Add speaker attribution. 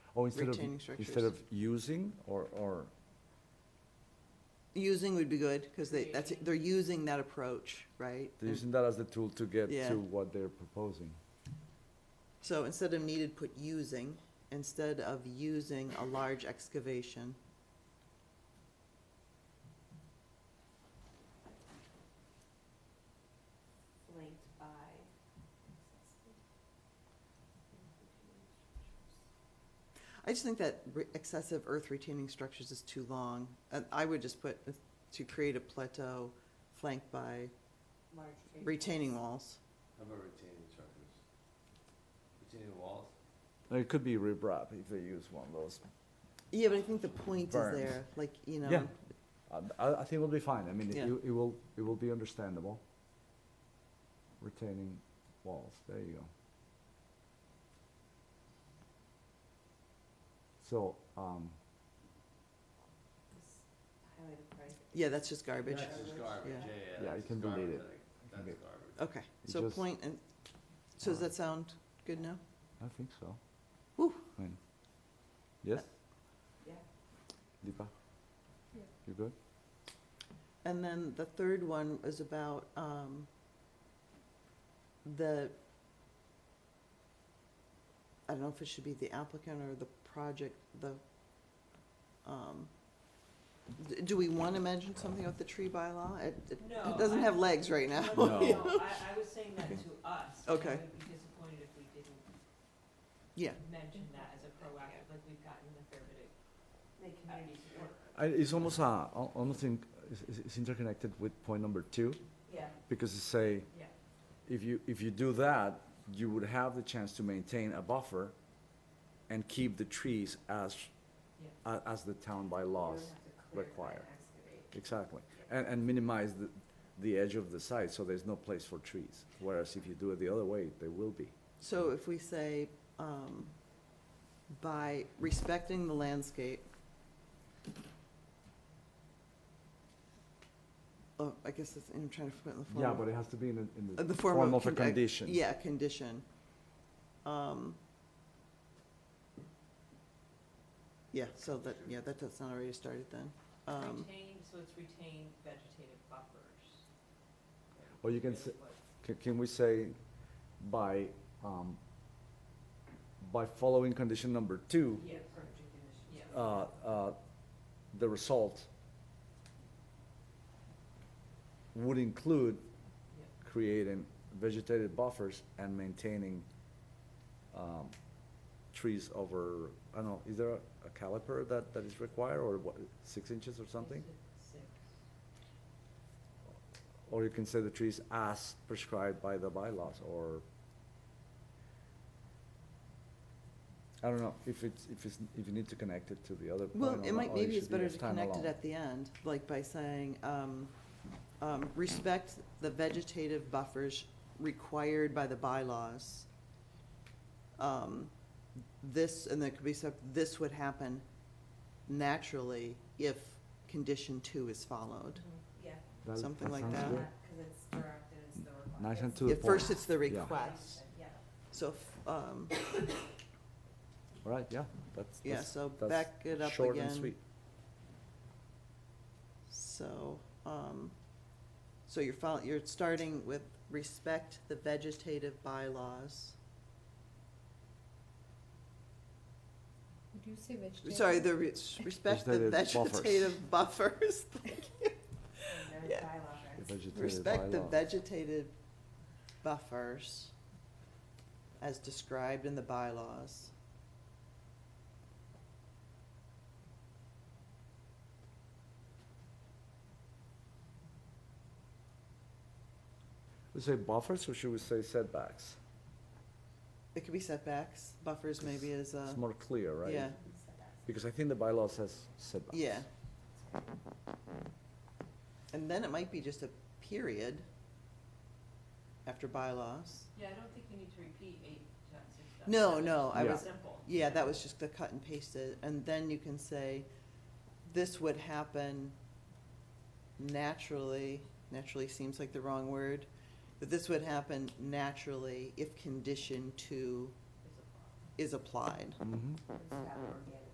Speaker 1: Oh, instead of,
Speaker 2: Retaining
Speaker 1: instead
Speaker 2: structures.
Speaker 1: of using or, or,
Speaker 2: Using would be good, because they, that's, they're using that approach, right?
Speaker 1: they're using that as the tool to get
Speaker 2: Yeah.
Speaker 1: to what they're proposing.
Speaker 2: So instead of needed, put using, instead of using a large excavation.
Speaker 3: linked by.
Speaker 2: I just think that re- excessive earth retaining structures is too long. And I would just put, uh, to create a plateau flanked by
Speaker 3: Large tree.
Speaker 2: retaining walls.
Speaker 4: How about retaining structures? Retaining walls?
Speaker 1: Now, It could be rip wrap if they use one of those.
Speaker 2: Yeah, but I think the point is
Speaker 1: Berms.
Speaker 2: there, like, you
Speaker 1: Yeah.
Speaker 2: know,
Speaker 1: Um, I, I think it'll be fine. I mean, it,
Speaker 2: Yeah.
Speaker 1: it will, it will be understandable. Retaining walls, there you go. So, um,
Speaker 3: Just Highlight the price.
Speaker 2: yeah, that's just garbage.
Speaker 4: That's just garbage,
Speaker 2: Yeah.
Speaker 4: yeah, yeah.
Speaker 1: Yeah,
Speaker 4: that's
Speaker 1: you
Speaker 4: just
Speaker 1: can delete
Speaker 4: garbage.
Speaker 1: it.
Speaker 4: Like,
Speaker 1: can
Speaker 4: That's
Speaker 1: get-
Speaker 4: garbage.
Speaker 2: Okay,
Speaker 1: It
Speaker 2: so
Speaker 1: just-
Speaker 2: point, and, so does that sound good now?
Speaker 1: I think so.
Speaker 2: Whew. Uh,
Speaker 1: I mean, yes,
Speaker 3: Yeah.
Speaker 1: Deepa?
Speaker 3: Yeah.
Speaker 1: You good?
Speaker 2: And then the third one is about um, the, I don't know if it should be the applicant or the project, the, um, d- do we want to mention something about the tree bylaw? It it- it
Speaker 3: No,
Speaker 2: doesn't
Speaker 3: I-
Speaker 2: have legs right now.
Speaker 1: No.
Speaker 3: I, I was saying that to us.
Speaker 2: Okay.
Speaker 3: I would be disappointed if we didn't
Speaker 2: Yeah,
Speaker 3: mention that as a proactive, like we've gotten a fair bit of community support.
Speaker 1: I, it's almost a, al- almost in, it's- it's, it's interconnected with point number two,
Speaker 3: Yeah,
Speaker 1: because it's say,
Speaker 3: yeah.
Speaker 1: if you, if you do that, you would have the chance to maintain a buffer and keep the trees as, a- as the town by laws. require. Exactly. And, and minimize the, the edge of the site, so there's no place for trees. Whereas if you do it the other way, there will be.
Speaker 2: so if we say, um, by respecting the landscape, oh, I guess it's, I'm trying to put it in the form.
Speaker 1: Yeah,
Speaker 2: of-
Speaker 1: but it has to be in, a- in
Speaker 2: Uh,
Speaker 1: the
Speaker 2: The form of.
Speaker 1: form of a
Speaker 2: con- uh,
Speaker 1: condition.
Speaker 2: Yeah, condition. Um, Yeah, so that, yeah, that does not already started then. Um,
Speaker 3: Retain, so it's retain vegetative buffers.
Speaker 1: Or you can
Speaker 3: Is
Speaker 1: s-
Speaker 3: what-
Speaker 1: Can, can we say by, um, by following condition number two,
Speaker 3: Yeah, perfect, yeah.
Speaker 1: uh, uh, the result would include
Speaker 3: Yeah.
Speaker 1: creating vegetated buffers and maintaining, um, trees over, I don't know, is there a a caliper that, that is required or what, six inches or something?
Speaker 3: Six.
Speaker 1: Or you can say the trees as prescribed by the bylaws, or, I don't know, if it's, if it's, if you need to connect it to the other point.
Speaker 2: Well,
Speaker 1: or
Speaker 2: it
Speaker 1: not,
Speaker 2: might,
Speaker 1: or
Speaker 2: maybe
Speaker 1: should
Speaker 2: it's
Speaker 1: be
Speaker 2: better
Speaker 1: as
Speaker 2: to connect it
Speaker 1: standalone.
Speaker 2: at the end, like by saying, um, um, respect the vegetative buffers required by the bylaws. Um, This, and there could be some, this would happen naturally if condition two is followed.
Speaker 3: Yeah.
Speaker 1: That-
Speaker 2: something like
Speaker 1: sounds
Speaker 2: that.
Speaker 1: good.
Speaker 3: Because it's direct and it's the requirement.
Speaker 1: Nice and to the
Speaker 2: Yeah,
Speaker 1: point.
Speaker 2: first it's the
Speaker 1: Yeah.
Speaker 2: request,
Speaker 3: Yeah.
Speaker 2: so, f- um,
Speaker 1: All right, yeah, that's,
Speaker 2: yeah,
Speaker 1: that's,
Speaker 2: so
Speaker 1: that's
Speaker 2: back it up
Speaker 1: short and
Speaker 2: again,
Speaker 1: sweet.
Speaker 2: so, um, so you're fol- you're starting with respect the vegetative bylaws.
Speaker 5: Would you say vegetarian?
Speaker 2: Sorry, the re- respect the
Speaker 1: Vegetative buffers.
Speaker 2: vegetative buffers,
Speaker 3: And there's
Speaker 2: Yeah.
Speaker 3: bylaw
Speaker 1: The
Speaker 3: regs.
Speaker 1: vegetative
Speaker 2: respect the
Speaker 1: bylaw.
Speaker 2: vegetative buffers as described in the bylaws.
Speaker 1: We say buffers, or should we say setbacks?
Speaker 2: It could be setbacks, buffers maybe is a,
Speaker 1: It's more clear, right?
Speaker 2: Uh, yeah,
Speaker 1: Because I think the bylaw says setbacks.
Speaker 2: yeah. And then it might be just a period after bylaws.
Speaker 3: Yeah, I don't think you need to repeat eight dot six dot
Speaker 2: No,
Speaker 3: seven.
Speaker 2: no, I
Speaker 3: It's
Speaker 1: was-
Speaker 3: Simple.
Speaker 2: Yeah, that was just the cut and pasted, and then you can say, this would happen naturally, naturally seems like the wrong word, but this would happen naturally if condition two
Speaker 3: It's a problem.
Speaker 2: is applied.
Speaker 1: Mhm. Mm-hmm.
Speaker 3: It's not organic.